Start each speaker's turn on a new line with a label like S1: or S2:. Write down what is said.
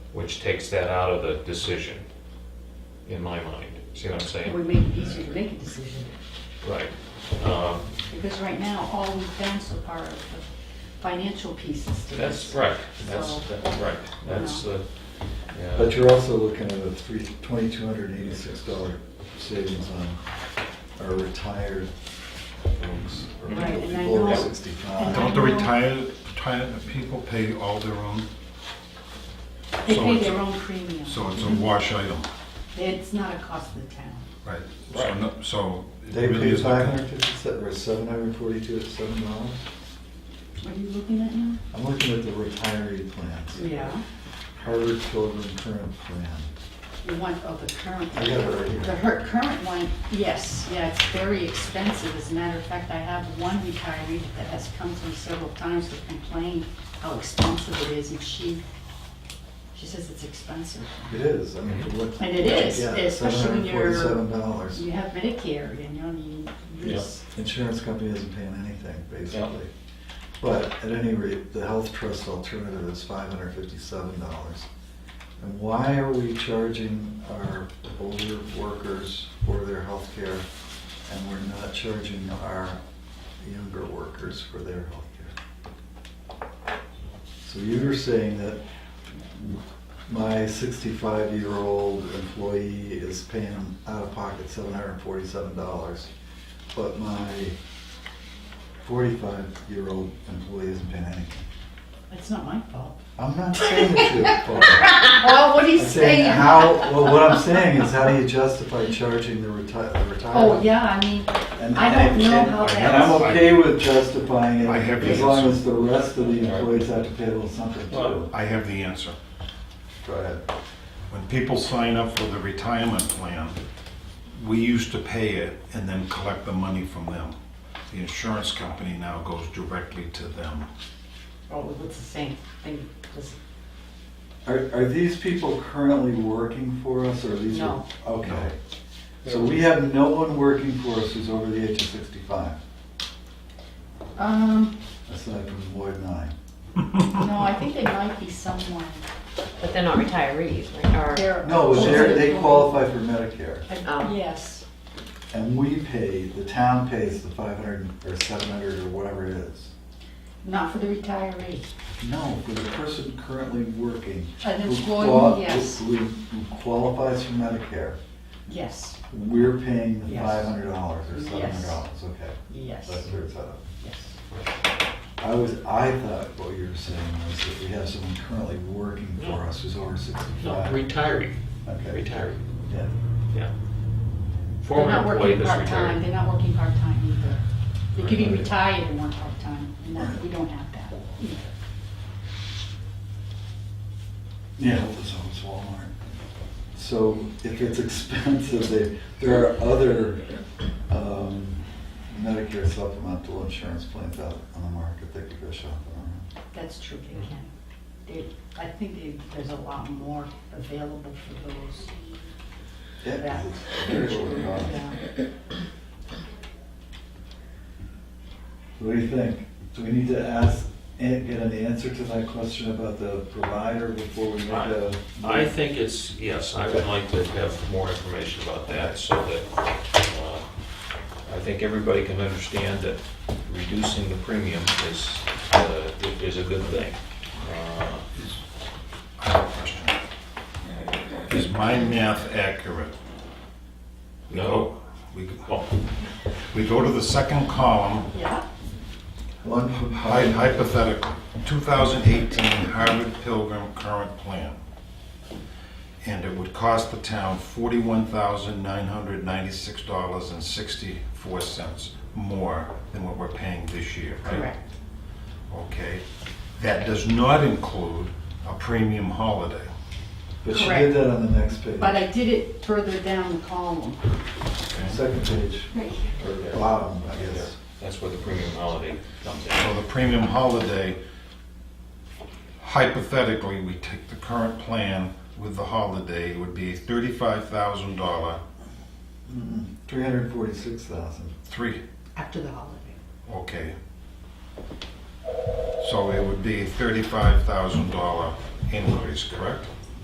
S1: which takes that out of the decision, in my mind. See what I'm
S2: We
S1: saying?
S2: make it easier to make a decision,
S1: Right. Um,
S2: because right now, all we've done so far are the financial pieces to
S1: That's
S2: this.
S1: right, that's,
S2: So-
S1: that's right, that's the, yeah.
S3: But you're also looking at a three, twenty-two hundred eighty-six dollar savings on our retired folks. or
S2: Right,
S3: people
S2: and I
S3: below
S2: know- and I
S3: Sixty-five.
S4: Don't the retired, retired people pay all their own?
S2: They
S4: So
S2: pay
S4: it's-
S2: their own premium.
S4: So it's a wash item,
S2: It's not a cost of the town.
S4: right? So
S1: Right.
S4: no- So. it
S3: They
S4: really
S3: pay
S4: is
S3: five
S4: like
S3: hundred
S4: a-
S3: fifty-seven, or seven hundred forty-two, at seven dollars.
S2: What are you looking at now?
S3: I'm looking at the retiree plans.
S2: Yeah.
S3: Harvard Children Current Plan.
S2: The one, oh, the current.
S3: I got it right here.
S2: The her, current one, yes, yeah, it's very expensive. As a matter of fact, I have one retiree that has come to me several times to complain how expensive it is, and she, she says it's expensive.
S3: It is, I mean, for what.
S2: And it is, especially when you're-
S3: Seven dollars.
S2: You have Medicare, you know, you, this,
S3: Insurance company isn't paying anything,
S1: Yeah.
S3: basically. But at any rate, the health trust alternative is five hundred fifty-seven dollars. And why are we charging our older workers for their health care and we're not charging our younger workers for their health care? So you were saying that my sixty-five-year-old employee is paying out of pocket seven hundred and forty-seven dollars, but my forty-five-year-old employee isn't paying anything.
S2: it's not my fault.
S3: I'm not saying it's your fault.
S2: Oh, what do you
S3: I'm
S2: say?
S3: saying how, well, what I'm saying is how do you justify charging the reti- the retiree?
S2: Oh, yeah, I mean,
S3: And-
S2: I don't
S3: and-
S2: know
S3: and-
S2: how
S3: And I'm
S2: that's,
S4: know.
S3: okay with justifying it
S4: I have
S3: as
S4: the
S3: long
S4: answer.
S3: as the rest of the employees have to pay a little something too.
S1: Well,
S4: I have the answer.
S3: Go ahead.
S4: When people sign up for the retirement plan, we used to pay it and then collect the money from them. The insurance company now goes directly to them.
S2: oh, it's the same thing, just,
S3: Are, are these people currently working for us or are these?
S2: No.
S3: Okay. So we have no one working for us who's over the age of sixty-five,
S2: um,
S3: aside from Lloyd and I.
S2: no, I think they might be someone,
S5: But they're not retirees, right? Or,
S2: they're.
S3: No, they're, they qualify for Medicare.
S5: Oh.
S2: Yes,
S3: And we pay, the town pays the five hundred or seven hundred or whatever it is.
S2: not for the retiree.
S3: No, for the person currently working.
S2: An
S3: who
S2: employee,
S3: qual-
S2: yes.
S3: Who who qualifies for Medicare,
S2: Yes,
S3: we're paying the
S2: Yes.
S3: five hundred dollars or
S2: Yes.
S3: seven hundred dollars, okay. That's
S2: yes,
S3: where it's at.
S2: yes.
S3: I was, I thought what you were saying was that we have someone currently working for us who's over
S1: No,
S3: sixty-five.
S1: retiree,
S3: Okay.
S1: retiree,
S3: Yeah.
S1: yeah.
S2: They're
S1: Former
S2: not
S1: employee
S2: working
S1: that's
S2: part-time,
S1: retired.
S2: they're not working part-time either. They could be
S3: Right.
S2: retired and work part-time, and that- we don't have that either.
S3: Yeah, it was always Walmart. So if it's expensive, they, there are other um, Medicare supplemental insurance plans out on the market that could go shopping around.
S2: That's true, they can. They, I think they, there's a lot more available for those.
S3: Yeah, 'cause it's very low cost.
S2: Yeah.
S3: What do you think? Do we need to ask, an- get an answer to that question about the provider before we make a?
S1: I think it's, yes, I would like to have more information about that so that, uh, I think everybody can understand that reducing the premium is, uh, is a good thing. Uh,
S4: I have a question. Is my math accurate?
S1: No,
S4: We go-
S1: well,
S4: we go to the second column
S2: Yeah,
S3: One
S4: Hy-
S3: provider.
S4: Hypothetical, 2018 Harvard Pilgrim current plan. And it would cost the town $41,996.64 more than what we're paying this year, right?
S2: correct.
S4: Okay. That does not include a premium holiday.
S3: But she
S2: Correct.
S3: did that on the next page,
S2: But I did it further down the column.
S3: second page, or bottom, I guess.
S1: that's where the premium holiday comes in.
S4: So the premium holiday, hypothetically, we take the current plan with the holiday, it would be $35,000,
S3: Three hundred forty-six thousand.
S4: three,
S5: After the holiday.
S4: Okay. So it would be thirty-five thousand dollar increase, correct?